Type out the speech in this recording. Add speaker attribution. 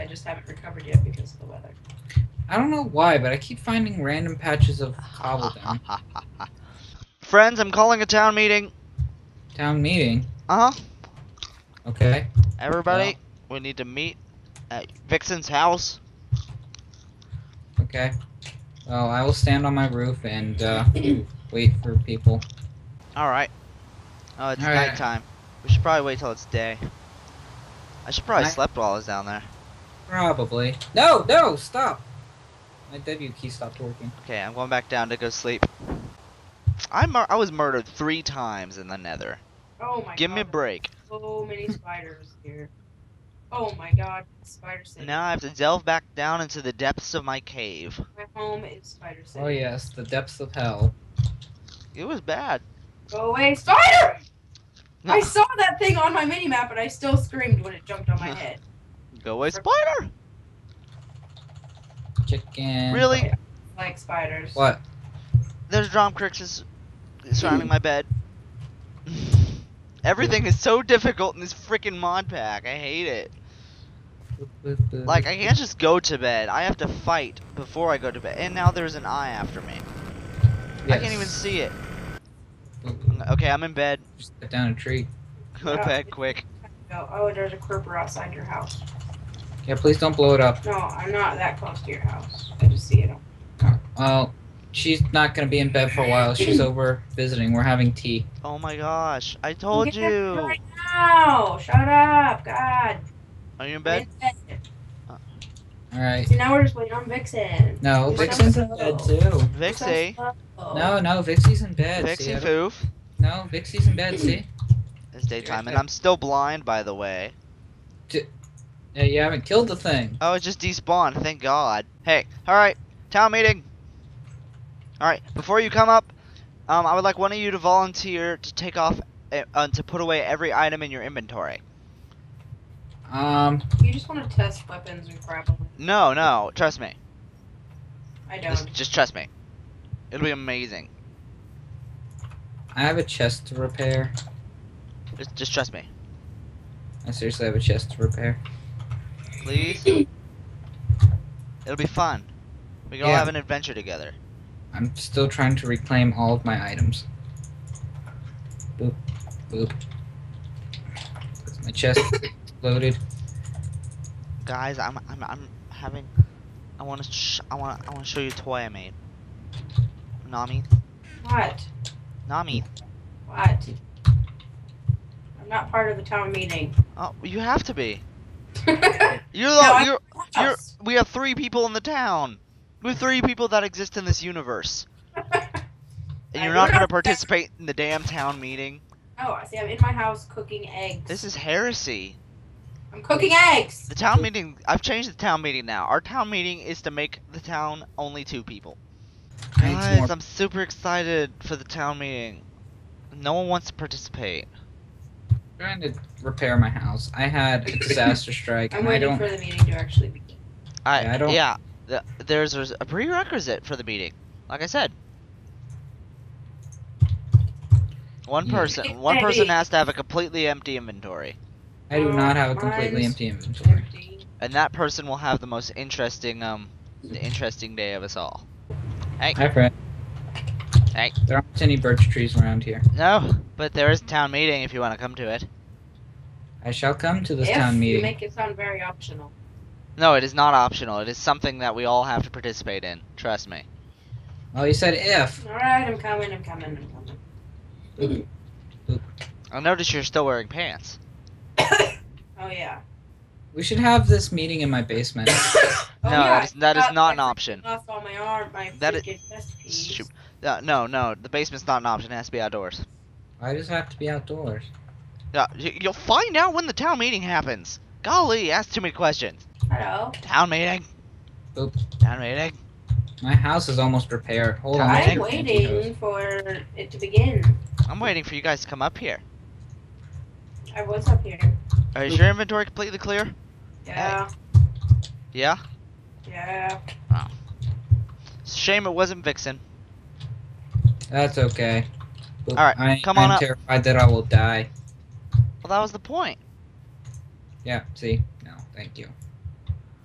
Speaker 1: just haven't recovered yet because of the weather.
Speaker 2: I don't know why, but I keep finding random patches of cobbledom.
Speaker 3: Friends, I'm calling a town meeting.
Speaker 2: Town meeting.
Speaker 3: Uh huh.
Speaker 2: Okay.
Speaker 3: Everybody, we need to meet at Vixen's house.
Speaker 2: Okay. Well, I will stand on my roof and uh, wait for people.
Speaker 3: All right. Oh, it's
Speaker 2: All right.
Speaker 3: nighttime. We should probably wait till it's day. I should probably
Speaker 2: Night-
Speaker 3: slept while I was down there.
Speaker 2: Probably. No, no, stop. My W key stopped working.
Speaker 3: Okay, I'm going back down to go sleep. I mur- I was murdered three times in the Nether.
Speaker 1: Oh my
Speaker 3: Give
Speaker 1: god.
Speaker 3: me a break.
Speaker 1: So many spiders here. Oh my god, spider city.
Speaker 3: Now I have to delve back down into the depths of my cave.
Speaker 1: My home is spider city.
Speaker 2: Oh yes, the depths of hell.
Speaker 3: It was bad.
Speaker 1: Go away, spider!
Speaker 3: No.
Speaker 1: I saw that thing on my mini map, and I still screamed when it jumped on my head.
Speaker 3: Go away, spider.
Speaker 2: Chicken.
Speaker 3: Really?
Speaker 1: Like spiders.
Speaker 2: What?
Speaker 3: There's Dromcrixes surrounding my bed. Everything is so difficult in this freaking mod pack. I hate it. Like, I can't just go to bed. I have to fight before I go to bed. And now there's an eye after me. I can't even see it.
Speaker 2: even.
Speaker 3: Okay, I'm in bed.
Speaker 2: Just cut down a tree.
Speaker 3: Go to bed quick.
Speaker 1: No. Oh, and there's a creeper outside your house.
Speaker 2: Yeah, please don't blow it up.
Speaker 1: No, I'm not that close to your house. I just see it. on-
Speaker 2: Well, she's not gonna be in bed for a while. She's over visiting. We're having tea.
Speaker 3: Oh my gosh. I told
Speaker 1: Get up
Speaker 3: you.
Speaker 1: Right now! Shut up! God.
Speaker 3: Are you in bed?
Speaker 2: All right.
Speaker 1: See, now we're just waiting on Vixen.
Speaker 2: No,
Speaker 1: You're
Speaker 2: Vixen's
Speaker 1: so
Speaker 2: in bed too.
Speaker 3: Vixie.
Speaker 2: No, no, Vixie's in bed. see,
Speaker 3: Vixie
Speaker 2: I don't-
Speaker 3: Foof.
Speaker 2: No, Vixie's in bed. See,
Speaker 3: It's daytime. And
Speaker 2: there.
Speaker 3: I'm still blind, by the way.
Speaker 2: yeah, you haven't killed the thing.
Speaker 3: Oh, it just despawned. Thank God. Hey, alright. Town meeting. Alright, before you come up, um, I would like one of you to volunteer to take off, uh, uh, to put away every item in your inventory.
Speaker 2: Um,
Speaker 1: You just want to test weapons and crap. on it.
Speaker 3: No, no, trust me.
Speaker 1: I
Speaker 3: Just,
Speaker 1: don't.
Speaker 3: just trust me. It'll be amazing.
Speaker 2: I have a chest to repair.
Speaker 3: Just, just trust me.
Speaker 2: I seriously have a chest to repair.
Speaker 3: Please? It'll be fun. We can all
Speaker 2: Yeah.
Speaker 3: have an adventure together.
Speaker 2: I'm still trying to reclaim all of my items. Boop, boop. That's my chest loaded.
Speaker 3: Guys, I'm, I'm, I'm having. I want to, sh- I want, to I want to show you a toy I made. Nami,
Speaker 1: What?
Speaker 3: Nami.
Speaker 1: What? I'm not part of the town meeting.
Speaker 3: Oh, you have to be.
Speaker 1: You're
Speaker 3: You're the, you're, you're. We have three people in the town. We're three people that exist in this universe,
Speaker 1: Oh,
Speaker 3: and
Speaker 1: I-
Speaker 3: you're
Speaker 1: we're
Speaker 3: not gonna
Speaker 1: not-
Speaker 3: participate in the damn town meeting.
Speaker 1: oh, I see. I'm in my house cooking eggs.
Speaker 3: This is heresy.
Speaker 1: I'm cooking eggs.
Speaker 3: The town meeting. I've changed the town meeting now. Our town meeting is to make the town only two people.
Speaker 2: I need some
Speaker 3: Guys,
Speaker 2: more.
Speaker 3: I'm super excited for the town meeting. No one wants to participate.
Speaker 2: trying to repair my house. I had a disaster strike.
Speaker 1: I'm
Speaker 2: and I
Speaker 1: waiting
Speaker 2: don't.
Speaker 1: for the meeting to actually begin.
Speaker 3: I,
Speaker 2: Yeah,
Speaker 3: yeah,
Speaker 2: I don't-
Speaker 3: th- there's, there's a prerequisite for the meeting. Like I said, one
Speaker 2: Yeah.
Speaker 3: person one person
Speaker 1: Hey.
Speaker 3: has to have a completely empty inventory,
Speaker 2: I do not have a completely
Speaker 1: Mine's
Speaker 2: empty inventory.
Speaker 1: Empty.
Speaker 3: and that person will have the most interesting um the interesting day of us all.
Speaker 2: Hi, Fred.
Speaker 3: Hey.
Speaker 2: There aren't any birch trees around here.
Speaker 3: No, but there is a town meeting if you want to come to it.
Speaker 2: I shall come to this
Speaker 1: if
Speaker 2: town
Speaker 1: you
Speaker 2: meeting.
Speaker 1: make it sound very optional.
Speaker 3: No, it is not optional. It is something that we all have to participate in. Trust me.
Speaker 2: Oh, you said if.
Speaker 1: All right, I'm coming. I'm coming. I'm coming.
Speaker 3: Mm-hmm. I notice you're still wearing pants.
Speaker 1: Oh yeah.
Speaker 2: We should have this meeting in my basement.
Speaker 1: Oh,
Speaker 3: no,
Speaker 1: yeah,
Speaker 3: it is, that is
Speaker 1: forgot-
Speaker 3: not an
Speaker 1: I
Speaker 3: option.
Speaker 1: Lost all my arm. My
Speaker 3: That is-
Speaker 1: freaking chest piece.
Speaker 3: Shoot. No, no, no. The basement's not an option. It has to be outdoors.
Speaker 2: Why does it have to be outdoors?
Speaker 3: Yeah, y- you'll find out when the town meeting happens. Golly, you asked too many questions.
Speaker 1: Hello.
Speaker 3: Town meeting.
Speaker 2: Oop.
Speaker 3: Town meeting.
Speaker 2: My house is almost repaired. Hold on.
Speaker 3: I
Speaker 1: I'm
Speaker 2: let me get the
Speaker 1: waiting for it to begin.
Speaker 3: I'm waiting for you guys to come up here.
Speaker 1: I was up here.
Speaker 3: Uh, Is your inventory completely clear?
Speaker 1: Yeah.
Speaker 3: Yeah.
Speaker 1: Yeah.
Speaker 3: It's a shame it wasn't Vixen.
Speaker 2: That's okay. Oop,
Speaker 3: Alright,
Speaker 2: I,
Speaker 3: come on
Speaker 2: I'm
Speaker 3: up.
Speaker 2: terrified that I will die.
Speaker 3: Well, that was the point.
Speaker 2: Yeah, see? No, thank you.